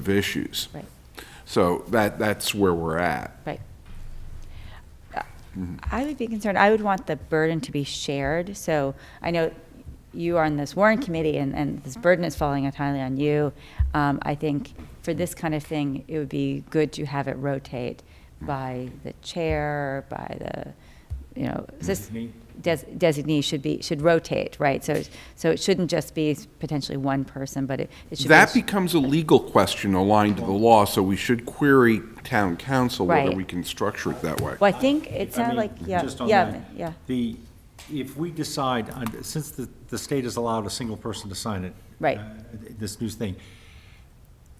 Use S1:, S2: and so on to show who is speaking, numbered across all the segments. S1: of issues.
S2: Right.
S1: So that, that's where we're at.
S2: Right. Uh, I would be concerned, I would want the burden to be shared, so I know you are on this Warren Committee, and, and
S3: Mm-hmm.
S2: this burden is falling entirely on you. Um, I think for this kind of thing, it would be good to have it rotate by the chair, by the, you know, this des- designee should be, should rotate, right? So, so it shouldn't just be potentially one person, but it it should be.
S1: That becomes a legal question aligned to the law, so we should query town council whether
S2: Right.
S1: we can structure it that way.
S2: Well, I think it
S3: I
S2: sounded
S3: mean,
S2: like, yeah,
S3: just on
S2: yeah,
S3: that,
S2: yeah.
S3: The, if we decide, on- since the, the state has allowed a single person to sign it.
S2: Right.
S3: uh, This new thing,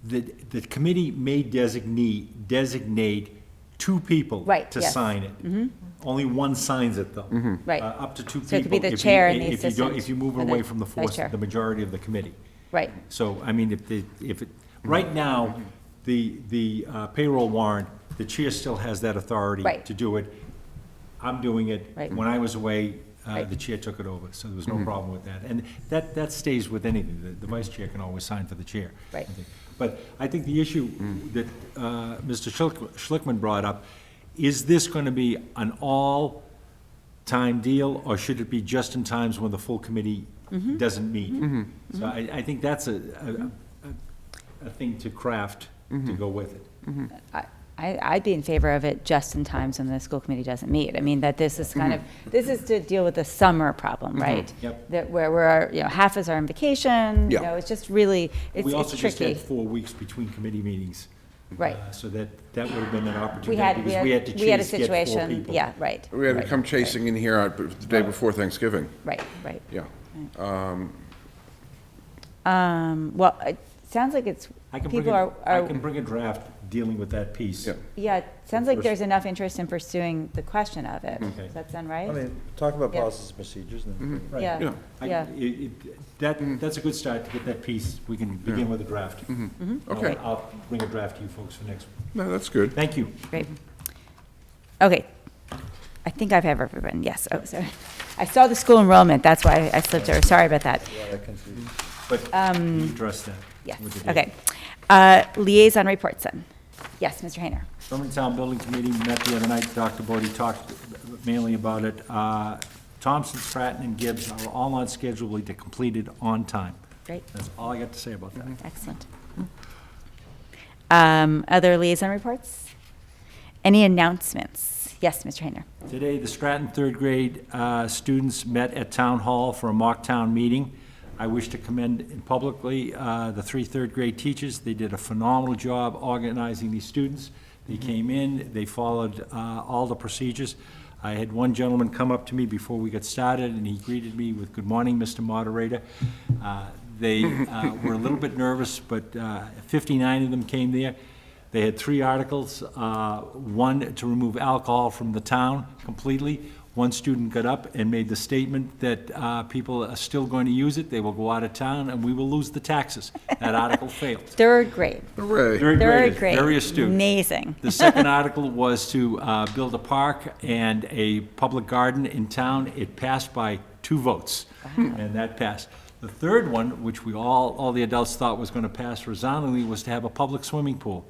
S3: the, the committee may designate, designate two people.
S2: Right,
S3: To
S2: yes. Mm-hmm.
S3: sign it. Only one signs it, though.
S2: Right.
S3: Uh, Up to two people.
S2: So it could be the
S3: if you-
S2: chair and the
S3: if you don't-
S2: assistant
S3: If you move
S2: and the
S3: away from the
S2: vice
S3: force,
S2: chair.
S3: the majority of the committee.
S2: Right,
S3: So, I mean, if the, if it, right now, the, the uh, payroll warrant, the chair still has that authority
S2: Right.
S3: to do it. I'm doing it.
S2: Right.
S3: When I was away, uh,
S2: Right.
S3: the chair took it over, so there was no problem with that. And that, that stays with anything. The, the vice chair can always sign for the chair. I
S2: Right. Mm.
S3: think. But I think the issue that, uh, Mr. Schlick- Schlickman brought up, is this gonna be an all time deal, or should it be just in times when the full committee
S2: Mm-hmm.
S3: doesn't meet? So I, I think that's a, a- a, a thing to craft
S2: Mm-hmm.
S3: to go with it.
S2: I, I- I'd be in favor of it just in times when the school committee doesn't meet. I mean, that this is kind of, this is to deal with the summer problem, right?
S3: Mm-hmm. Yep.
S2: That where we're, you know, half is our on vacation, you
S1: Yeah.
S2: know, it's just really, it's
S3: We
S2: it's
S3: also just had
S2: tricky.
S3: four weeks between committee meetings.
S2: Right.
S3: uh, So that, that would have been an
S2: We
S3: opportunity,
S2: had, we
S3: because we had to
S2: had, we had a
S3: chase, get four
S2: situation,
S3: people.
S2: yeah, right.
S1: We had to
S2: right,
S1: come
S2: right,
S1: chasing in here on- the day before Thanksgiving,
S2: Right, right.
S1: yeah.
S2: Um, Well, it sounds like it's,
S3: I can bring,
S2: people
S3: a-
S2: are,
S3: I
S2: are
S3: can bring a draft dealing with that piece.
S1: Yeah.
S2: yeah, it sounds like
S1: Pers-
S2: there's enough interest in pursuing the question of it.
S3: Okay.
S2: Does that sound
S4: I
S2: right?
S4: mean, talk about
S2: Yeah.
S4: policies and procedures and then.
S3: Right.
S2: Yeah,
S1: Yeah.
S3: I-
S2: yeah.
S3: it- it- That, that's a good start to get that piece. We can begin with a draft.
S2: Mm-hmm.
S3: I'll-
S1: Okay.
S3: I'll bring a draft to you folks for next,
S1: No, that's good.
S3: thank you.
S2: Great. Okay. I think I've ever been, yes, oh, sorry. I saw the school enrollment, that's why I slipped over, sorry about that.
S4: Yeah, that confused.
S3: But you addressed that.
S2: Um, Yes,
S3: with the date.
S2: okay. Uh, Liaison reports then. Yes, Mr. Hayner.
S3: Berman Town Building Committee met the other night, Dr. Bodie talked mainly about it. Uh, Thompson, Stratton, and Gibbs are all on schedule to be completed on time.
S2: Great,
S3: That's all I got to say about
S2: Mm-hmm.
S3: that.
S2: excellent. Um, Other liaison reports? Any announcements? Yes, Mr. Hayner.
S3: Today, the Stratton third grade uh, students met at Town Hall for a mock town meeting. I wish to commend publicly uh, the three third grade teachers. They did a phenomenal job organizing these students. They came in, they followed uh, all the procedures. I had one gentleman come up to me before we got started, and he greeted me with, "Good morning, Mr. Moderator." Uh, They uh, were a little bit nervous, but uh, 59 of them came there. They had three articles, uh, one to remove alcohol from the town completely. One student got up and made the statement that uh, people are still going to use it, they will go out of town, and we will lose the taxes. That article failed.
S2: Third grade.
S1: Hooray.
S3: Third
S2: Third
S3: graders,
S2: grade.
S3: very astute.
S2: Amazing.
S3: The second article was to uh, build a park and a public garden in town. It passed by two votes, and that passed. The third one, which we all, all the adults thought was going to pass resoundingly, was to have a public swimming pool.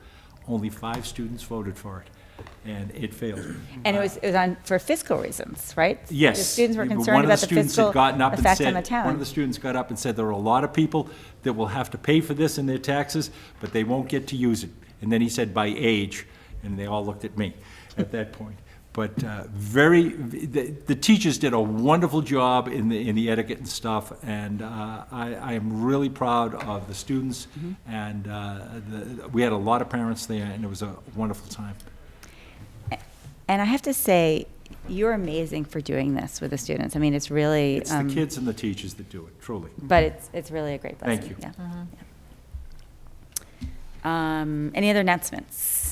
S3: Only five students voted for it, and it failed.
S2: And it was, it was on, for fiscal reasons, right?
S3: Yes.
S2: The students were
S3: But
S2: concerned about the fiscal
S3: One of the students had gotten up and
S2: effect on the
S3: said,
S2: town.
S3: one of the students got up and said, there are a lot of people that will have to pay for this in their taxes, but they won't get to use it. And then he said, by age, and they all looked at me at that point. But uh, very, the the teachers did a wonderful job in the in the etiquette and stuff, and uh, I I am really proud of the students,
S2: Mm-hmm.
S3: and uh, the- we had a lot of parents there, and it was a wonderful time.
S2: And I have to say, you're amazing for doing this with the students. I mean, it's really,
S3: It's the
S2: um,
S3: kids and the teachers that do it, truly.
S2: but it's, it's really a great blessing.
S3: Thank you.
S2: Yeah. Yeah. Um, any other announcements?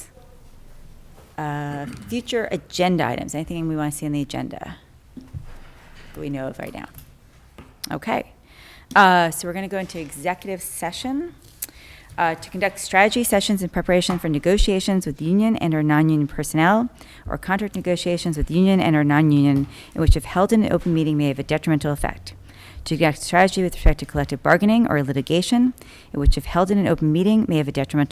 S2: Uh, future agenda items, anything we want to see on the agenda that we know of right now? Okay. Uh, So we're going to go into executive session uh, to conduct strategy sessions in preparation for negotiations with union and or non-union personnel or contract negotiations with union and or non-union in which if held in an open meeting may have a detrimental effect. To conduct strategy with respect to collective bargaining or litigation in which if held in an open meeting may have a detrimental